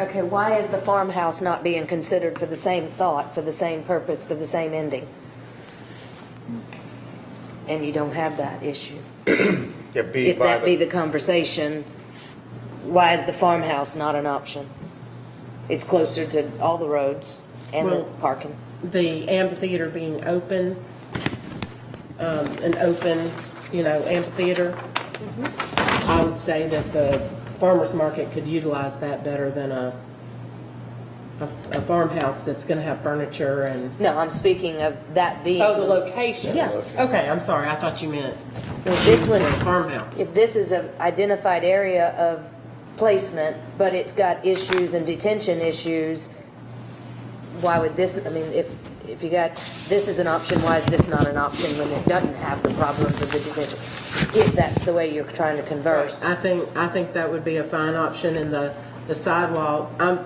Okay, why is the farmhouse not being considered for the same thought, for the same purpose, for the same ending? And you don't have that issue. Yeah, B If that be five, the conversation, why is the farmhouse not an option? It's closer to all the roads and the Well- parking. the amphitheater being open, um, an open, you know, amphitheater, Mm-hmm. I would say that the farmer's market could utilize that better than a, a a farmhouse that's gonna have furniture and, No, I'm speaking of that being. oh, the location? Yeah. Okay, I'm sorry, I thought you meant This for a one, farmhouse. If this is an identified area of placement, but it's got issues and detention issues, why would this, I mean, if, if you got, this is an option, why is this not an option when it doesn't have the problems of the detention? If that's the way you're trying to converse. I think, I think that would be a fine option in the, the sidewalk. I'm,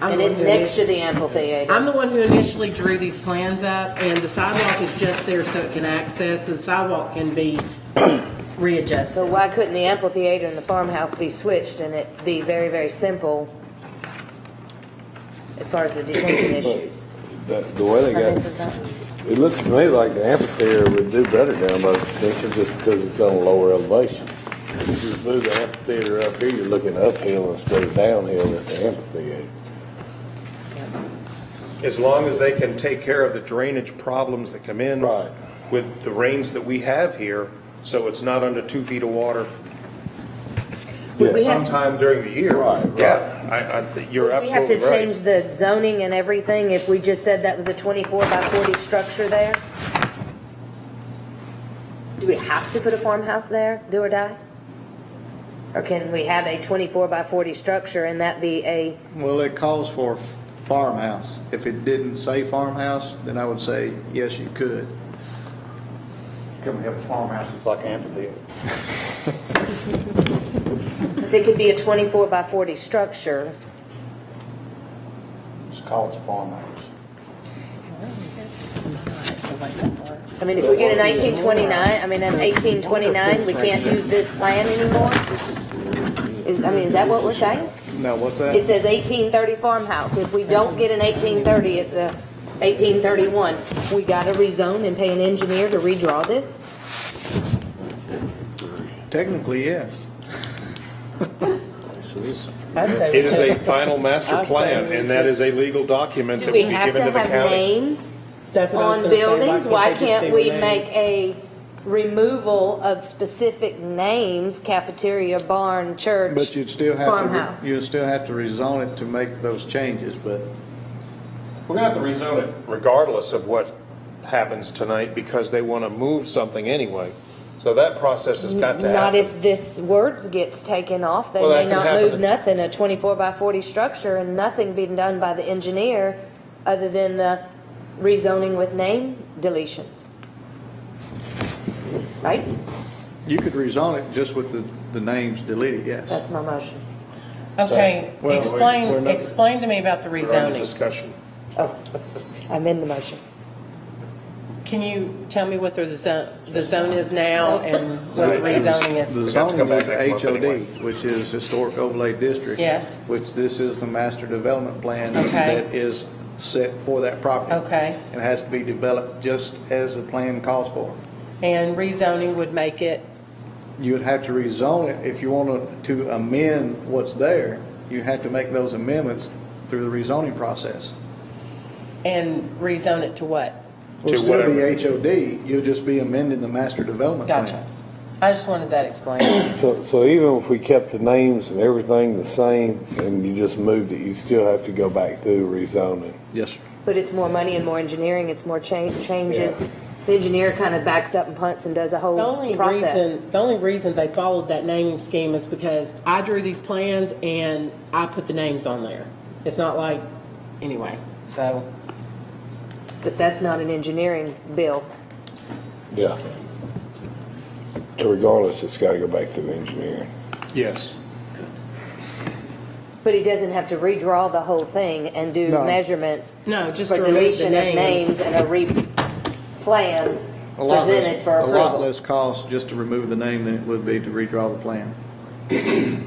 I'm. And the one it's who next to initi- the amphitheater. I'm the one who initially drew these plans up, and the sidewalk is just there so it can access, and the sidewalk can be So readjusted. why couldn't the amphitheater and the farmhouse be switched and it be very, very simple as far as the detention issues? The the way they Or got, this is not- it looks to me like the amphitheater would do better down by the extension just because it's on a lower elevation. If you move the amphitheater up here, you're looking uphill instead of downhill at the amphitheater. as long as they can take care of the drainage problems that come in. Right. With the rains that we have here, so it's not under two feet of water Yes. sometime during the year. Right, right. Yeah, I, I, you're We have absolutely to right. change the zoning and everything if we just said that was a 24 by 40 structure there? Do we have to put a farmhouse there, do or die? Or can we have a 24 by 40 structure and that be a, Well, it calls for farmhouse. If it didn't say farmhouse, then I would say, yes, you could. Can we have a farmhouse that's like an amphitheater? because it could be a 24 by 40 structure. Just call it a farmhouse. I mean, if we get a 1929, I mean, an 1829, we can't use this plan anymore? Is, I mean, is that what we're saying? Now, what's that? It says 1830 farmhouse. If we don't get an 1830, it's a 1831. We got to rezone and pay an engineer to redraw this? Technically, yes. It is a final master I plan, say- and that is a legal document Do that we would be have given to to the have county. names That's what I was on gonna say, buildings? Why they just can't be we renamed? make a removal of specific names, cafeteria, barn, But church, you'd still have farmhouse? to, you'd still have to rezone it to make those changes, but We're gonna have to rezone it regardless of what happens tonight, because they wanna move something anyway. So that process has got to happen. Not if this words gets taken off, they Well, that may could not happen. move nothing, a twenty-four by forty structure and nothing being done by the engineer other than the rezoning with name deletions. Right? you could rezone it just with the, the names deleted, yes. That's my motion. Okay, Well, we- we're explain, not- explain to me about the We're under rezoning. discussion. Oh, I'm in the motion. Can you tell me what the zone, the zone is now and what the rezoning The is? have to come zoning back is next month anyway. HOD, which is Historic Overlay District. Yes. Which this is the master development plan Okay. that is set for that property. Okay. And has to be developed just as the plan calls for. And rezoning would make it, You'd have to rezone it, if you wanted to amend what's there, you have to make those amendments through the rezoning process. and rezone it to what? It'll To still be whatever. HOD, you'll just be amending the master development plan. Gotcha. I just wanted that explained. So, so even if we kept the names and everything the same and you just moved it, you still have to go back through rezoning. Yes, sir. But it's more money and more engineering, it's more cha- changes. The engineer kind of backs up and punts and does a The whole only process. reason, the only reason they followed that naming scheme is because I drew these plans and I put the names on there. It's not like, anyway, so. But that's not an engineering bill. Yeah. So regardless, it's gotta go back through engineering. Yes. But he doesn't have to redraw the whole thing and do No. measurements. No, just for to remove the deletion of names. names and a re-plan A lot less- presented for A lot approval. less cost just to remove the name than it would be to redraw the plan.